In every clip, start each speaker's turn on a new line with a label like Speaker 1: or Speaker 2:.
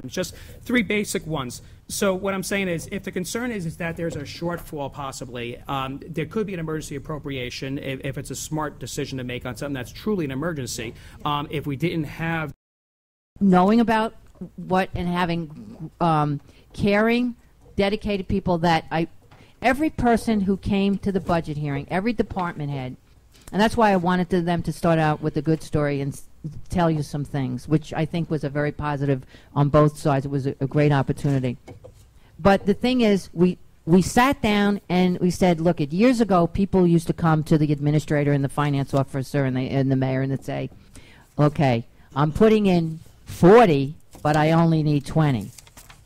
Speaker 1: times, just three basic ones. So what I'm saying is, if the concern is, is that there's a shortfall possibly, um, there could be an emergency appropriation if, if it's a smart decision to make on something that's truly an emergency. Um, if we didn't have
Speaker 2: knowing about what and having um, caring, dedicated people that I, every person who came to the budget hearing, every department head, and that's why I wanted to, them to start out with a good story and s- tell you some things, which I think was a very positive on both sides. It was a, a great opportunity. But the thing is, we we sat down and we said, look, at years ago, people used to come to the administrator and the finance officer and, they, and the mayor and they'd say, okay, I'm putting in 40, but I only need 20.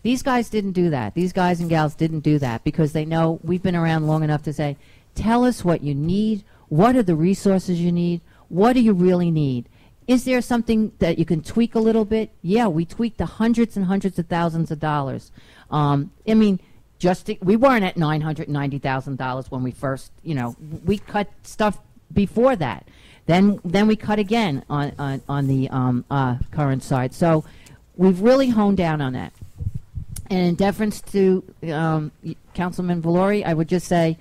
Speaker 2: These guys didn't do that. These guys and gals didn't do that because they know we've been around long enough to say, tell us what you need. What are the resources you need? What do you really need? Is there something that you can tweak a little bit? Yeah, we tweaked the hundreds and hundreds of thousands of dollars. Um, I mean, just to, we weren't at nine hundred ninety thousand dollars when we first, you know, we cut stuff before that. Then then we cut again on on, on the um, uh, current side. So we've really honed down on that. And in deference to um, y- Councilman Valori, I would just say,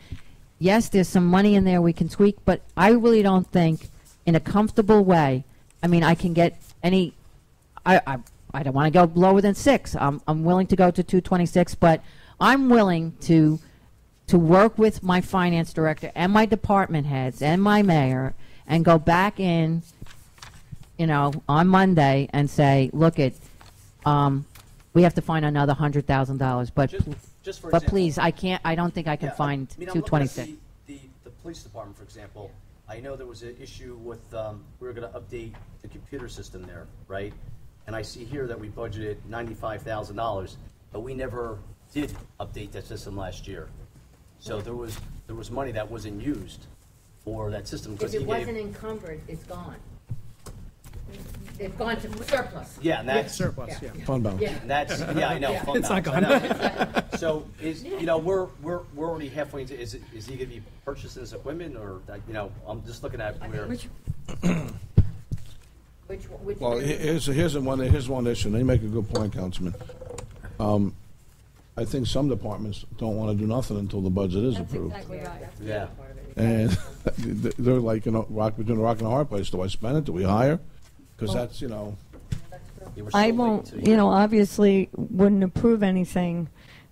Speaker 2: yes, there's some money in there we can tweak, but I really don't think, in a comfortable way, I mean, I can get any, I, I, I don't want to go lower than six. I'm, I'm willing to go to 226, but I'm willing to to work with my finance director and my department heads and my mayor and go back in, you know, on Monday and say, look it, um, we have to find another hundred thousand dollars, but,
Speaker 3: Just, just for
Speaker 2: but
Speaker 3: example.
Speaker 2: please, I can't, I don't think I can
Speaker 3: Yeah, I
Speaker 2: find
Speaker 3: mean, I'm
Speaker 2: two
Speaker 3: looking at
Speaker 2: twenty-six.
Speaker 3: The, the- the police department, for example, I know there was an issue with, um, we were gonna update the computer system there, right? And I see here that we budgeted ninety-five thousand dollars, but we never did update that system last year. So there was, there was money that wasn't used for that system. 'cause he gave-
Speaker 2: encumbered, it's gone. It's gone to surplus.
Speaker 3: Yeah, and that's.
Speaker 1: surplus, yeah.
Speaker 4: Fund balance.
Speaker 3: And That's, yeah, I know, fund
Speaker 1: It's not
Speaker 3: balance, I know. So is, you know, we're, we're, we're already halfway into, is, it- is he gonna be purchasing this equipment or, like, you know, I'm just looking at where.
Speaker 2: Which, which.
Speaker 4: Well, he- here's, here's the one, here's one issue, and you make a good point, Councilman. Um, I think some departments don't want to do nothing until the budget is approved.
Speaker 3: Yeah.
Speaker 4: And they're like, you know, rock, between a rock and a hard place. Do I spend it? Do we hire? Because that's, you know,
Speaker 3: Yeah, we're still
Speaker 5: I
Speaker 3: waiting
Speaker 5: won't,
Speaker 3: to-
Speaker 5: you know, obviously wouldn't approve anything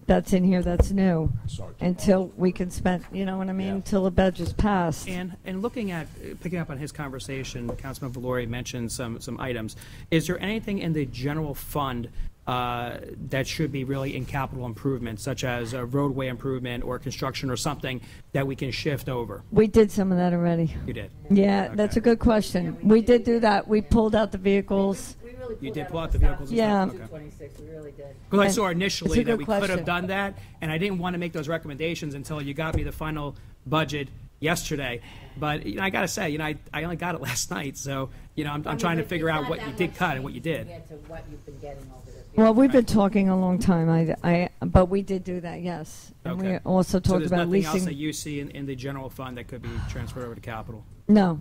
Speaker 5: that's in here that's new
Speaker 4: Sorry.
Speaker 5: until we can spend, you know what I mean,
Speaker 3: Yeah.
Speaker 5: until the budget's passed.
Speaker 1: And, and looking at, uh, picking up on his conversation, Councilman Valori mentioned some, some items. Is there anything in the general fund uh, that should be really in capital improvement, such as a roadway improvement or construction or something that we can shift over?
Speaker 5: We did some of that already.
Speaker 1: You did.
Speaker 5: Yeah, that's a good question. We did do that. We pulled out the vehicles.
Speaker 1: You did pull out the vehicles and
Speaker 5: Yeah.
Speaker 1: stuff? Okay. Because I saw initially
Speaker 5: It's
Speaker 1: that
Speaker 5: a good
Speaker 1: we could have
Speaker 5: question.
Speaker 1: done that, and I didn't want to make those recommendations until you got me the final budget yesterday. But, you know, I got to say, you know, I, I only got it last night, so, you know, I'm, I'm trying to figure out what you did cut and what you did.
Speaker 5: Well, we've been talking a long time, I, I, but we did do that, yes. And we
Speaker 1: Okay.
Speaker 5: also
Speaker 1: So
Speaker 5: talked
Speaker 1: there's
Speaker 5: about
Speaker 1: nothing else that
Speaker 5: leasing.
Speaker 1: you see in, in the general fund that could be transferred over to capital?
Speaker 5: No,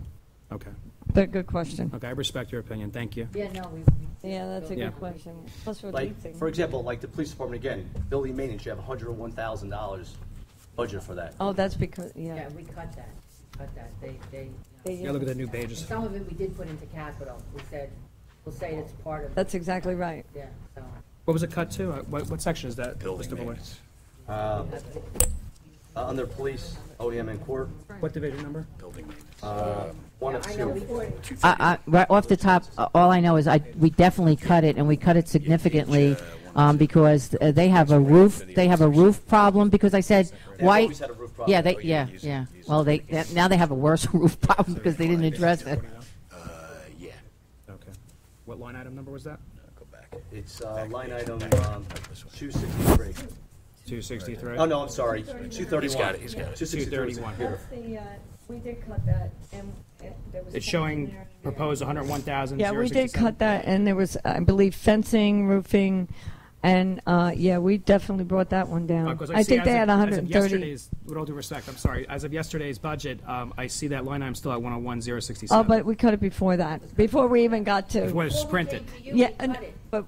Speaker 1: Okay,
Speaker 5: but good question.
Speaker 1: okay, I respect your opinion, thank you.
Speaker 2: Yeah, no, we.
Speaker 5: Yeah, that's a
Speaker 1: Yeah.
Speaker 5: good question. Plus we're
Speaker 3: Like,
Speaker 5: leasing.
Speaker 3: for example, like the police department, again, building maintenance, you have hundred and one thousand dollars budget for that.
Speaker 5: Oh, that's because, yeah.
Speaker 2: Yeah, we cut that, cut that, they, they,
Speaker 5: They-
Speaker 1: Yeah, look at the new pages.
Speaker 2: some of it we did put into capital, we said, we'll say it's part of,
Speaker 5: That's exactly right.
Speaker 2: yeah, so.
Speaker 1: What was it cut to? Uh, What, what section is that? Mr. Valori?
Speaker 3: Uh, uh, Under police, OEM and court,
Speaker 1: What division number?
Speaker 3: one of two.
Speaker 2: I,
Speaker 6: I-
Speaker 2: right off the top, uh, all I know is I, we definitely cut it, and we cut it significantly, um, because uh, they have a roof, they have a roof problem, because I said,
Speaker 3: They've
Speaker 2: why?
Speaker 3: always had a roof problem.
Speaker 2: Yeah, they,
Speaker 6: Oh,
Speaker 2: yeah,
Speaker 6: yeah, use it,
Speaker 2: yeah.
Speaker 6: use it.
Speaker 2: Well, they, that- now they have a worse roof problem because they didn't address it.
Speaker 6: Uh, yeah,
Speaker 1: Okay. What line item number was that?
Speaker 6: go back.
Speaker 3: It's uh, line item two sixty-three.
Speaker 1: 263?
Speaker 3: Oh, no, I'm sorry, two thirty-one.
Speaker 6: He's got it, he's got it.
Speaker 3: Two sixty-three.
Speaker 1: 231.
Speaker 5: the, uh, we did cut that, and there was.
Speaker 1: It's showing proposed 101,000.
Speaker 5: Yeah, we did cut that, and there was, I believe, fencing, roofing, and, uh, yeah, we definitely brought that one down.
Speaker 1: Because
Speaker 5: I
Speaker 1: Uh, see
Speaker 5: think
Speaker 1: as
Speaker 5: they
Speaker 1: of-
Speaker 5: had
Speaker 1: as of
Speaker 5: 130.
Speaker 1: Yesterday's, with all due respect, I'm sorry, as of yesterday's budget, um, I see that line item still at 101,067.
Speaker 5: Oh, but we cut it before that, before we even got
Speaker 1: uh, It
Speaker 5: to,
Speaker 1: was printed.
Speaker 5: yeah, and- but